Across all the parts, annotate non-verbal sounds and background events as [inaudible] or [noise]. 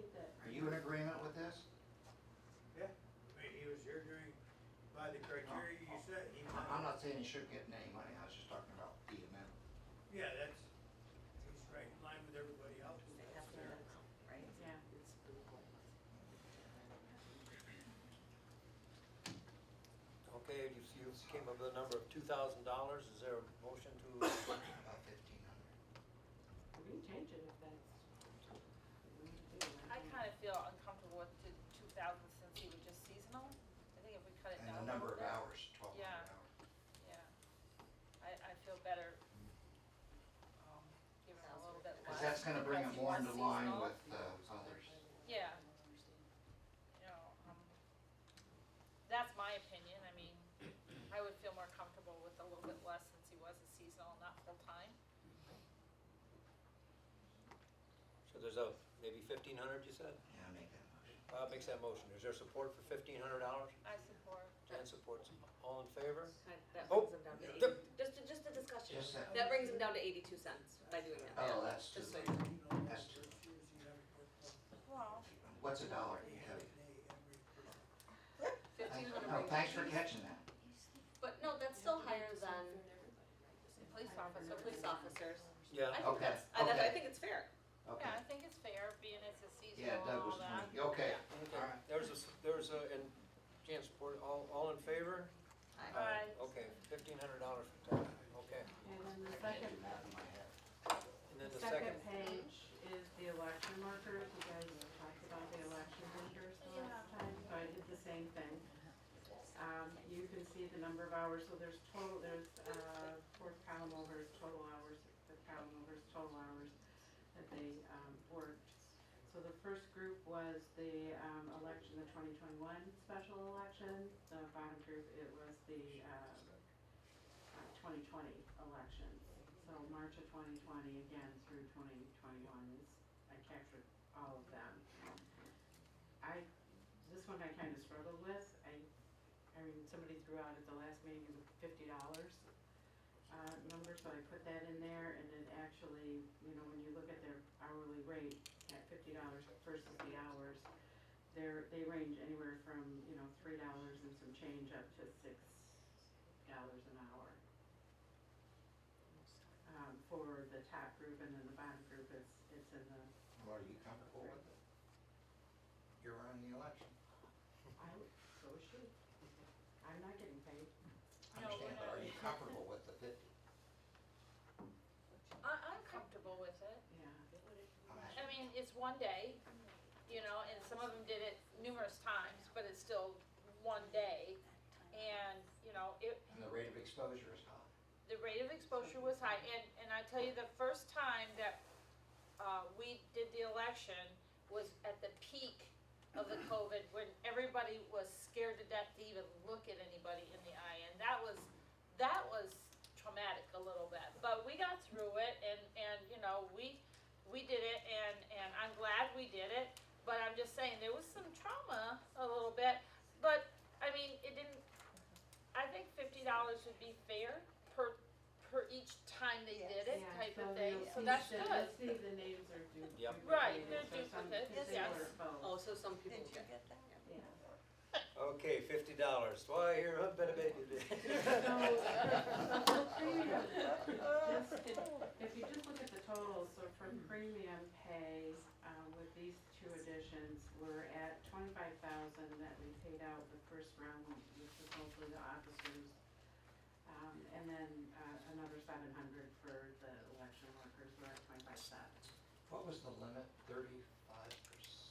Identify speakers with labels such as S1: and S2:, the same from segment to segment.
S1: you in agreement with this?
S2: Yeah, I mean, he was here during, by the criteria you said, he.
S1: I- Oh. I'm not saying he should get any money, I was just talking about the amount.
S2: Yeah, that's, he's right in line with everybody else. that's there.
S3: right?
S4: Yeah.
S5: Okay, you, you came up with a number of two thousand dollars, is there a motion to,
S1: About fifteen hundred.
S4: We can change it if that's.
S6: I kind of feel uncomfortable with the two thousand since he was just seasonal. I think if we cut it down.
S1: And the
S6: a
S1: number
S6: little
S1: of
S6: bit,
S1: hours, twelve hundred
S6: Yeah.
S1: hours.
S6: Yeah. I, I feel better, um, giving it a little bit less.
S1: Because that's gonna bring it
S6: because he
S1: more
S6: was
S1: into line
S6: seasonal.
S1: with uh, others.
S6: Yeah. You know, um, that's my opinion. I mean, I would feel more comfortable with a little bit less since he was a seasonal, not full-time.
S5: so there's a, maybe fifteen hundred, you said?
S1: Yeah, make that motion.
S5: Bob makes that motion, is there support for fifteen hundred dollars?
S6: I support.
S5: Jan supports, all in favor?
S3: That
S5: Oh,
S3: brings them down to
S5: the-
S3: eighty, just, a- just a discussion.
S1: Just that-
S3: That brings them down to eighty-two cents by doing that.
S1: Oh, that's too
S3: Just
S1: late.
S3: so you know.
S2: You know,
S1: That's
S2: first years he had a
S6: Well,
S1: What's a dollar?
S2: good one. He had a day every person.
S3: Fifteen hundred.
S1: No, thanks for catching that.
S3: But no, that's still higher than
S6: police officer,
S3: the police officers. I
S5: Yeah,
S3: think
S1: Okay,
S3: that's, I, that- I
S1: okay.
S3: think it's fair.
S6: yeah, I
S1: Okay.
S6: think it's fair, being it's a seasonal
S1: Yeah,
S6: and
S1: Doug was
S6: all that.
S1: twenty, okay.
S5: okay, there's a, s- there's a, and Jan support, all, all in favor?
S6: Aye. Aye.
S5: Okay, fifteen hundred dollars for Tom, okay,
S4: And then the
S1: I can't do
S4: second,
S1: math in my head.
S5: and then the
S4: second
S5: second,
S4: page is the election markers. You guys talked about the election markers the last time, so I did the same thing. Um, you can see the number of hours, so there's total, there's, uh, fourth column over is total hours, fifth column over is total hours that they, um, worked. So the first group was the, um, election, the twenty twenty-one special election. The bottom group, it was the, uh, twenty twenty elections. So March of twenty twenty, again, through twenty twenty-one is, I captured all of them. I, this one I kind of struggled with. I I mean, somebody threw out at the last meeting a fifty dollars uh, number, so I put that in there, and it actually, you know, when you look at their hourly rate at fifty dollars versus the hours, they're, they range anywhere from, you know, three dollars and some change up to six dollars an hour. Um, for the top group, and then the bottom group, it's, it's in the,
S1: Well, are you comfortable with it? You're running the election.
S4: I would, so should, I'm not getting paid.
S1: I
S6: No, we're
S1: understand, but are
S6: not.
S1: you comfortable with the
S6: [laughs]
S1: fifty?
S6: I, I'm comfortable with it.
S4: Yeah.
S6: I mean, it's one day, you know, and some of them did it numerous times, but it's still one day. And, you know, it,
S1: And the rate of exposure is high.
S6: the rate of exposure was high, and, and I tell you, the first time that, uh, we did the election was at the peak of the COVID, when everybody was scared to death to even look at anybody in the eye, and that was, that was traumatic a little bit, but we got through it, and, and, you know, we, we did it, and, and I'm glad we did it, but I'm just saying, there was some trauma a little bit, but, I mean, it didn't I think fifty dollars would be fair per, per each time they did it
S4: Yeah,
S6: type of
S4: so
S6: thing,
S4: you'll
S6: so
S4: see
S6: that's
S4: that- you'll
S6: good.
S4: see the names are duped.
S5: Yep.
S6: Right, they're
S4: So some-
S6: duplicates,
S4: because they
S6: yes.
S4: were both.
S3: Oh, so some
S7: Did
S3: people
S7: you
S3: get.
S7: get
S3: [laughs]
S7: that?
S4: [laughs] Yeah.
S5: okay, fifty dollars, why, you're a better
S3: [laughs]
S5: [laughs] baby.
S4: So, so for premium, just if- if you just look at the totals, so for premium pay, uh, with these two additions, we're at twenty-five thousand that we paid out the first round, which was mostly the officers. Um, and then, uh, another seven hundred for the election workers, we're at twenty-five thousand.
S1: What was the limit, thirty-five percent?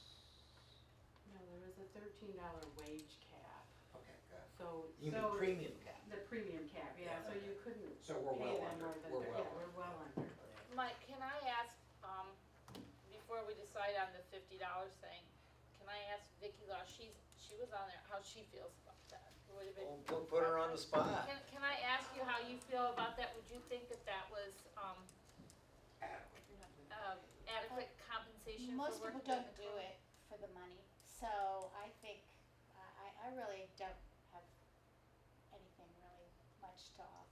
S4: No, there was a thirteen dollar wage cap,
S1: Okay, good.
S4: so, so.
S1: You mean premium cap?
S4: The premium cap, yeah, so you couldn't
S1: So we're
S4: pay
S1: well
S4: them
S1: under.
S4: more than,
S1: We're
S4: thir-
S1: well
S4: yeah, we're
S1: under.
S4: well under.
S6: Mike, can I ask, um, before we decide on the fifty dollars thing, can I ask Vicky Law, she's, she was on there, how she feels about that? Would it be-
S5: Don't put put her on the spot.
S6: Can, can I ask you how you feel about that? Would you think that that was, um, uh, adequate compensation for
S8: Most
S6: work
S8: people
S6: that
S8: don't
S6: they
S8: do it for the money, so I think, I, I really don't have anything really much to offer.